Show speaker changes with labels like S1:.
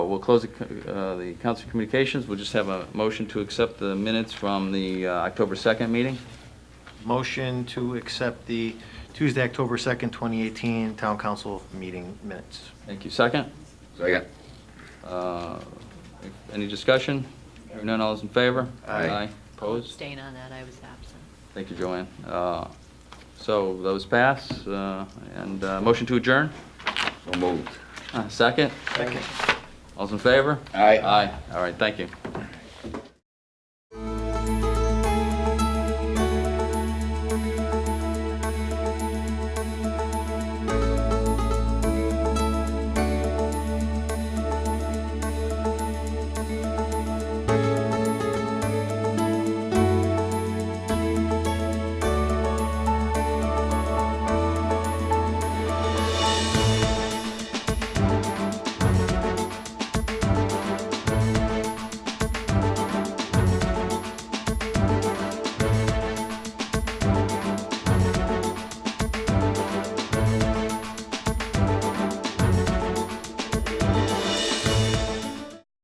S1: we'll close the co- uh, the Council of Communications. We'll just have a motion to accept the minutes from the uh, October 2nd meeting.
S2: Motion to accept the Tuesday, October 2nd, 2018 Town Council meeting minutes.
S1: Thank you. Second?
S3: Second.
S1: Uh, Any discussion? Hearing none, all those in favor?
S2: Aye.
S1: Opposed?
S4: Staying on that, I was absent.
S1: Thank you, Joanne. Uh, So those pass, uh, and uh, motion to adjourn?
S3: So moved.
S1: Uh, Second?
S2: Second.
S1: All's in favor?
S3: Aye.
S1: Aye. All right, thank you.